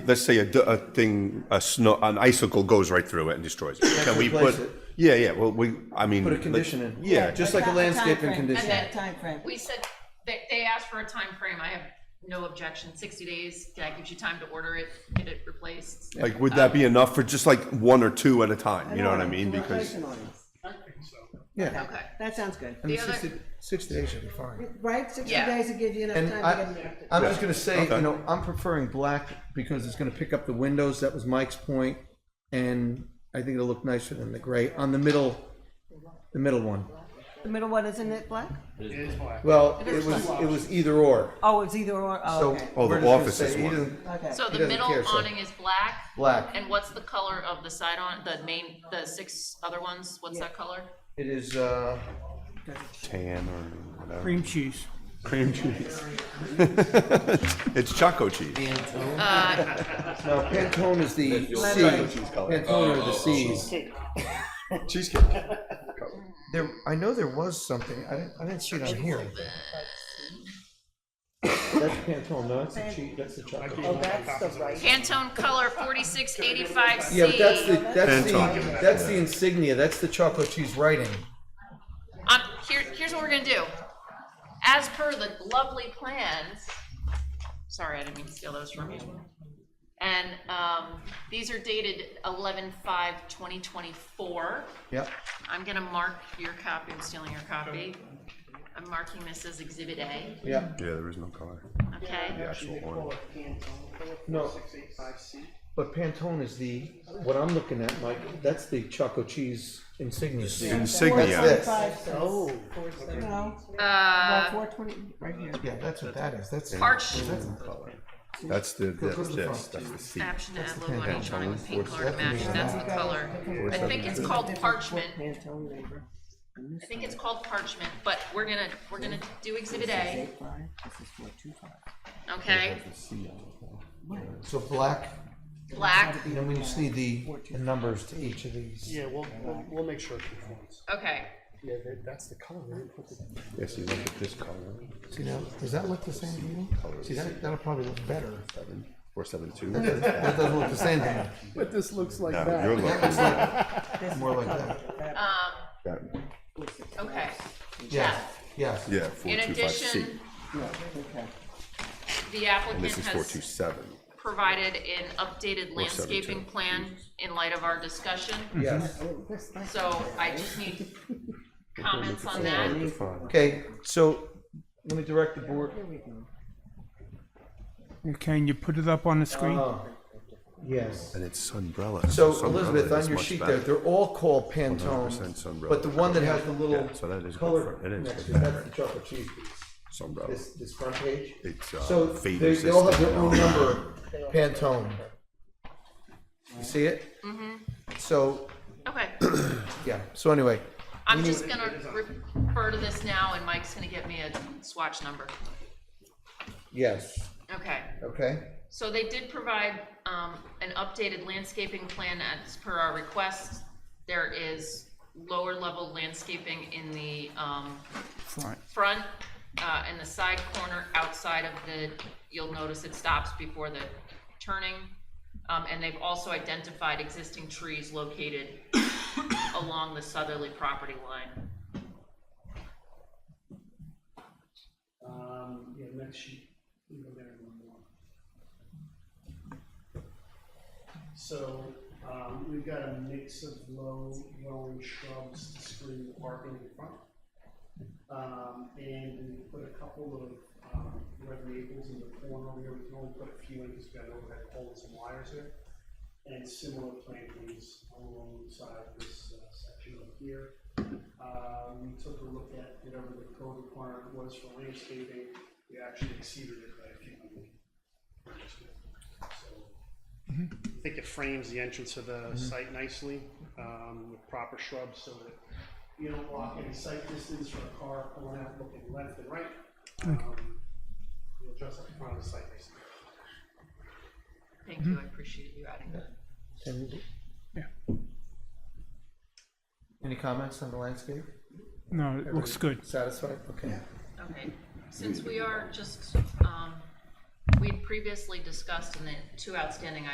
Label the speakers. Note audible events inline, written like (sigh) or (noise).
Speaker 1: let's say a, d- a thing, a snow, an icicle goes right through it and destroys it. Can we
Speaker 2: replace
Speaker 1: put?
Speaker 2: it.
Speaker 1: Yeah, yeah. Well, we, I mean,
Speaker 2: Put a
Speaker 1: like-
Speaker 2: condition in.
Speaker 1: Yeah, just
Speaker 2: Just like a
Speaker 3: Like a- a
Speaker 2: landscaping
Speaker 3: timeframe.
Speaker 2: condition.
Speaker 4: And then-
Speaker 3: Time frame.
Speaker 4: We said, they, they asked for a time frame. I have no objection, sixty days, that gives you time to order it, get it replaced.
Speaker 1: like, would that be enough for just like one or two at a time? You know what I mean?
Speaker 3: Like
Speaker 1: Because
Speaker 3: an ordinance.
Speaker 2: Yeah.
Speaker 4: Okay.
Speaker 3: That sounds good.
Speaker 2: And
Speaker 4: The other-
Speaker 2: sixty, sixty days should be fine.
Speaker 3: Right, sixty
Speaker 4: Yeah.
Speaker 3: days will give you enough
Speaker 2: And
Speaker 3: time to
Speaker 2: I,
Speaker 3: get it active.
Speaker 2: I'm just gonna say,
Speaker 1: Okay.
Speaker 2: you know, I'm preferring black because it's gonna pick up the windows. That was Mike's point, and I think it'll look nicer than the gray on the middle, the middle one.
Speaker 3: The middle one, isn't it black?
Speaker 2: Well, it was it was either or.
Speaker 3: Oh, it's either or, oh,
Speaker 2: So
Speaker 3: okay.
Speaker 1: Oh, the
Speaker 2: we're just gonna
Speaker 1: office
Speaker 2: say
Speaker 1: is one.
Speaker 2: either-
Speaker 3: Okay.
Speaker 4: So
Speaker 2: He
Speaker 4: the
Speaker 2: doesn't
Speaker 4: middle
Speaker 2: care, so-
Speaker 4: awning is black?
Speaker 2: Black.
Speaker 4: And what's the color of the side on, the main, the six other ones? What's that color?
Speaker 2: It is. Uh,
Speaker 1: tan or whatever.
Speaker 5: cream cheese.
Speaker 1: cream cheese. (laughs) it's choco cheese.
Speaker 2: no, Pantone is the C.
Speaker 1: Cheese color. Oh,
Speaker 2: Pantone are the C's.
Speaker 1: Cheesecake.
Speaker 2: There, I know there was something. I didn't, I didn't see it on here. That's Pantone. No, that's the cheese. That's the chocolate.
Speaker 3: Oh, that's the right.
Speaker 4: Pantone color forty-six eighty-five C.
Speaker 2: Yeah, but that's the that's the
Speaker 1: Pantone.
Speaker 2: that's the insignia. That's the chocolate cheese writing.
Speaker 4: Um, here, here's what we're gonna do. As per the lovely plans, sorry, I didn't mean to steal those from you. And, um, these are dated eleven five twenty twenty-four.
Speaker 2: Yep.
Speaker 4: I'm gonna mark your copy, I'm stealing your copy. I'm marking this as exhibit A,
Speaker 1: Yeah,
Speaker 2: Yeah.
Speaker 1: there is no color. The
Speaker 4: okay?
Speaker 1: actual orange.
Speaker 2: No. But Pantone is the what I'm looking at, Mike. That's the chocolate cheese insignia.
Speaker 1: Insignia.
Speaker 2: That's
Speaker 3: Five cents. Oh. No,
Speaker 4: Uh,
Speaker 3: four twenty, right here.
Speaker 2: Yeah, that's what that is. That's
Speaker 4: Parched.
Speaker 2: That's not color.
Speaker 1: That's the that's this. That's the C.
Speaker 4: option to add logo on each awning with paint color to match, that's the color. I think it's called parchment,
Speaker 3: Pantone labor.
Speaker 4: I think it's called parchment, but we're gonna, we're gonna do exhibit A,
Speaker 3: Eight five, this is four two five.
Speaker 4: okay?
Speaker 2: So black.
Speaker 4: Black,
Speaker 2: And then we just need the, the numbers to each of these.
Speaker 6: Yeah, we'll, we'll, we'll make sure it conforms.
Speaker 4: okay.
Speaker 6: Yeah, that, that's the color, we didn't put the.
Speaker 1: Yes, you look at this color.
Speaker 2: See now, does that look the same to you? See that that'll probably look better.
Speaker 1: Seven four seven
Speaker 2: (laughs)
Speaker 1: two.
Speaker 2: That doesn't look the same to
Speaker 6: But this looks like
Speaker 1: No, you're
Speaker 2: (laughs)
Speaker 1: looking at
Speaker 2: me. More like that.
Speaker 1: that one.
Speaker 4: Um, Okay,
Speaker 2: Yes. Yes.
Speaker 1: Yeah, four
Speaker 4: in
Speaker 1: two five C.
Speaker 4: addition, the applicant
Speaker 1: This is four two
Speaker 4: has
Speaker 1: seven.
Speaker 4: provided an updated landscaping
Speaker 1: 472.
Speaker 4: plan in light of our discussion,
Speaker 2: Yes.
Speaker 4: so I just need
Speaker 1: (laughs)
Speaker 4: comments on that.
Speaker 2: Okay, so let me direct the board.
Speaker 5: Can you put it up on the screen?
Speaker 2: Oh, Yes.
Speaker 1: And it's sunbrella.
Speaker 2: So
Speaker 1: Sunbrella
Speaker 2: Elizabeth,
Speaker 1: is
Speaker 2: on your
Speaker 1: much
Speaker 2: sheet
Speaker 1: better.
Speaker 2: there, they're all called Pantone,
Speaker 1: 100%
Speaker 2: but the one that has the little
Speaker 1: Yeah, so that is good
Speaker 2: color
Speaker 1: for- it is
Speaker 2: next
Speaker 1: good for
Speaker 2: to it, that's
Speaker 1: her.
Speaker 2: the chocolate cheese piece. This,
Speaker 1: Sunbrella.
Speaker 2: this front page.
Speaker 1: It's, uh,
Speaker 2: So
Speaker 1: fade
Speaker 2: they, they all have their own
Speaker 1: resistant.
Speaker 2: number, Pantone. You see it? Mm-hmm. So,
Speaker 4: Okay,
Speaker 2: yeah, so anyway,
Speaker 4: I'm just gonna refer to this now, and Mike's gonna get me a swatch number.
Speaker 2: yes,
Speaker 4: Okay,
Speaker 2: okay,
Speaker 4: so they did provide, um, an updated landscaping plan as per our request. There is lower level landscaping in the, um,
Speaker 5: Front.
Speaker 4: front, uh, and the side corner outside of the, you'll notice it stops before the turning. Um, and they've also identified existing trees located along the southerly property line.
Speaker 6: Um, yeah, next sheet. You go there and one more. So, um, we've got a mix of low growing shrubs to screen the parking in front. Um, and we put a couple of, um, red maples in the corner here, we can only put a few in because we've got overhead poles and wires here. And similar plantings alongside this uh, section up here. Uh, we took a look at whatever the code requirement was for landscaping, we actually exceeded it by a few hundred. So, I think it frames the entrance of the site nicely, um, with proper shrubs so that you don't block any sight distance from a car pulling out looking left and right. Um, You'll dress up in front of the site nicely.
Speaker 4: Thank you, I appreciate you adding that.
Speaker 2: and.
Speaker 5: Yeah.
Speaker 2: Any comments on the landscape?
Speaker 5: No, it looks good.
Speaker 2: Satisfied, okay.
Speaker 4: Okay, since we are just, um, we'd previously discussed in the two outstanding